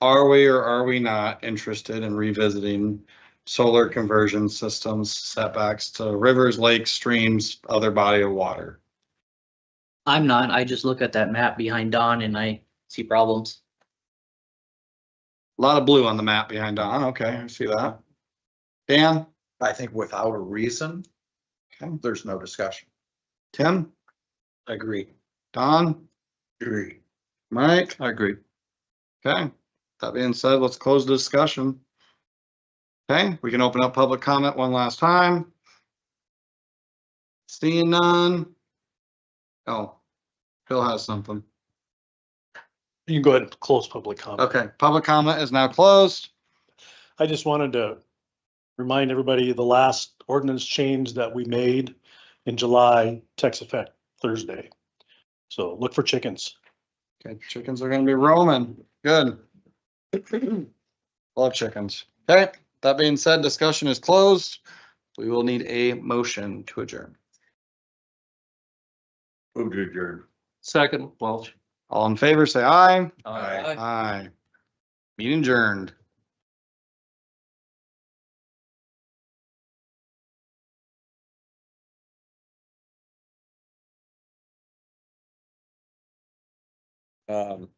Are we or are we not interested in revisiting solar conversion systems setbacks to rivers, lakes, streams, other body of water? I'm not, I just look at that map behind Don and I see problems. A Lot of blue on the map behind Don. Okay, I see that. Dan, I think without a reason, Okay. there's no discussion. Tim, Agree. Don, Agree. Mike? I agree. Okay, that being said, let's close the discussion. Okay, we can open up public comment one last time. Seeing none. Oh, Phil has something. You can go ahead and close public comment. Okay, public comment is now closed. I just wanted to remind everybody, the last ordinance change that we made in July takes effect Thursday. So look for chickens. Okay, chickens are gonna be roaming. Good. Love chickens. Okay, that being said, discussion is closed. We will need a motion to adjourn. Move to adjourn. Second, Welch. All in favor, say aye. Aye. Aye. Meeting adjourned. um,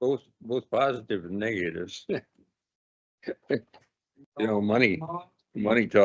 both, both positive and negatives. You know, money, money talk.